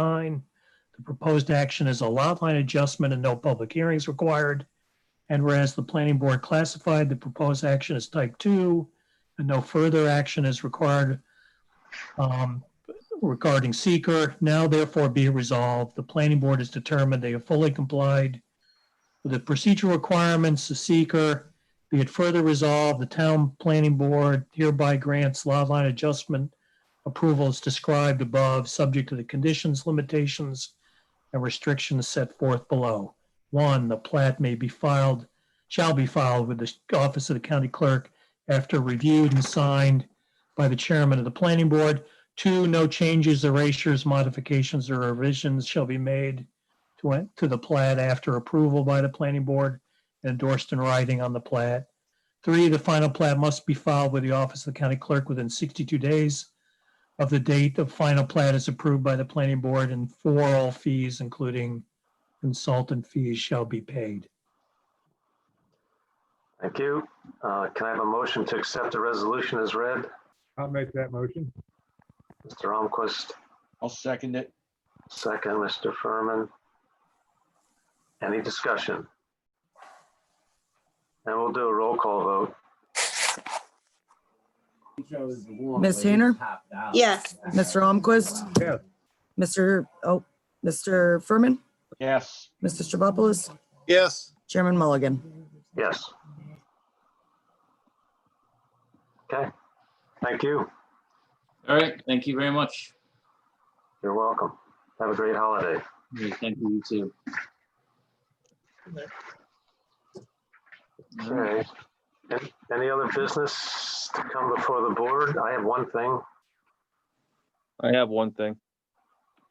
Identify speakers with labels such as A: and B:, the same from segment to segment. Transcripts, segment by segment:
A: nine. The proposed action is a lot line adjustment and no public hearings required. And whereas the planning board classified the proposed action as type two and no further action is required um, regarding seeker, now therefore be it resolved, the planning board has determined they have fully complied with the procedural requirements of seeker. Be it further resolved, the town planning board hereby grants lot line adjustment approval is described above, subject to the conditions, limitations, and restrictions set forth below. One, the plat may be filed, shall be filed with the office of the county clerk after reviewed and signed by the chairman of the planning board. Two, no changes, erasures, modifications, or revisions shall be made to, it- to the plat after approval by the planning board and endorsed in writing on the plat. Three, the final plat must be filed with the office of the county clerk within 62 days of the date the final plat is approved by the planning board and for all fees, including consultant fees, shall be paid.
B: Thank you. Uh, Can I have a motion to accept the resolution as read?
C: I'll make that motion.
B: Mr. Almquist,
D: I'll second it.
B: second, Mr. Furman. Any discussion? And we'll do a roll call vote.
E: Ms. Hayner?
F: Yes.
E: Mr. Almquist?
C: Yes.
E: Mr., oh, Mr. Furman?
D: Yes,
E: Mr. Stavropoulos?
G: Yes,
E: Chairman Mulligan?
B: Yes. Okay, thank you.
H: All right, thank you very much.
B: You're welcome. Have a great holiday.
H: Thank you, you too. All right.
B: Okay. Any- Any other business to come before the board? I have one thing,
I: I have one thing.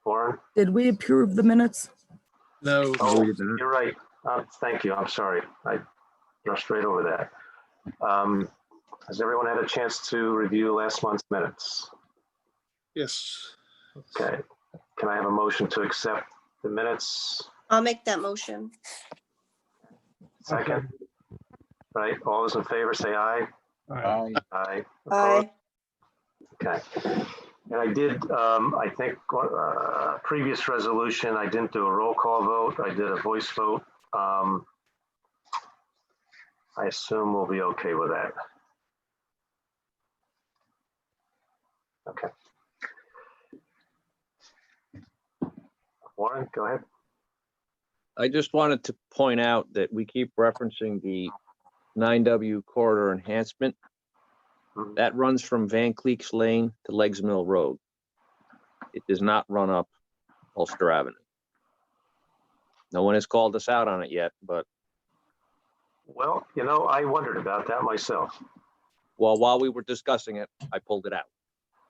B: Warren.
E: Did we approve the minutes?
G: no,
B: Oh, you're right. Uh, Thank you. I'm sorry. I rushed right over that. Um, Has everyone had a chance to review last month's minutes?
G: yes,
B: Okay. Can I have a motion to accept the minutes?
F: I'll make that motion.
B: Second, right? All those in favor, say aye.
C: All right.
D: I,
B: Aye. Opposed?
F: Aye.
B: Okay. And I did, um, I think, uh, previous resolution, I didn't do a roll call vote. I did a voice vote. Um, I assume we'll be okay with that. Okay. Warren, go ahead.
I: I just wanted to point out that we keep referencing the 9W corridor enhancement.
B: Mhm.
I: That runs from Van Cleek's Lane to Legs Mill Road. It does not run up Ulster Avenue. No one has called us out on it yet, but
B: Well, you know, I wondered about that myself.
I: while, while we were discussing it, I pulled it out.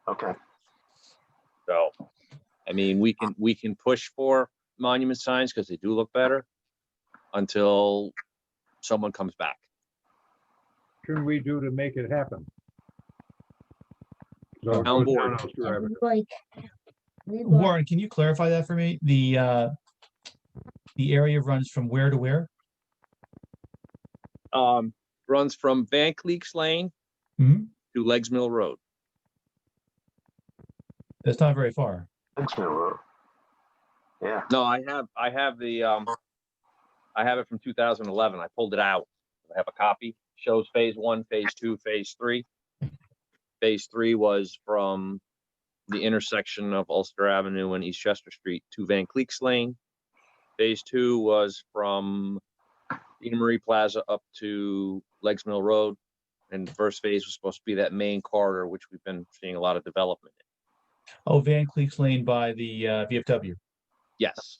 B: Okay.
I: So, I mean, we can, we can push for monument signs because they do look better until someone comes back.
C: Can we do to make it happen? So it goes down
I: Town board.
C: on Ulster Avenue.
J: Warren, can you clarify that for me? The, uh, the area runs from where to where?
I: um, runs from Van Cleek's Lane
J: Mhm.
I: to Legs Mill Road.
J: That's not very far.
B: Thanks, Mill Road. Yeah,
I: No, I have, I have the, um, I have it from two thousand eleven. I pulled it out. I have a copy. Shows phase one, phase two, phase three. Phase three was from the intersection of Ulster Avenue and East Chester Street to Van Cleek's Lane. Phase two was from Eden Marie Plaza up to Legs Mill Road. And the first phase was supposed to be that main corridor, which we've been seeing a lot of development in.
J: Oh, Van Cleef's Lane by the, uh, VFW.
I: Yes.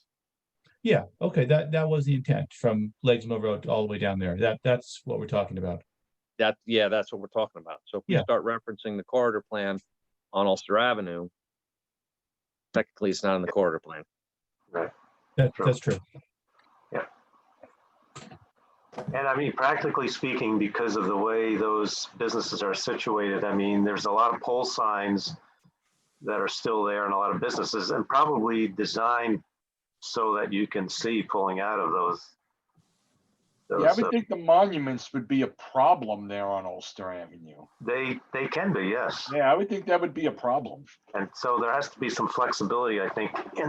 J: Yeah, okay, that, that was the intent from Legs Mill Road all the way down there. That, that's what we're talking about.
I: That, yeah, that's what we're talking about. So if we
J: Yeah.
I: start referencing the corridor plan on Ulster Avenue, technically it's not in the corridor plan.
J: That,
B: Sure.
J: that's true.
B: and I mean, practically speaking, because of the way those businesses are situated, I mean, there's a lot of pole signs that are still there and a lot of businesses and probably designed so that you can see pulling out of those.
D: yeah, I
B: those,
D: would
B: uh,
D: think the monuments would be a problem there on Ulster Avenue.
B: They, they can be, yes.
D: Yeah, I would think that would be a problem.
B: And so there has to be some flexibility, I think, in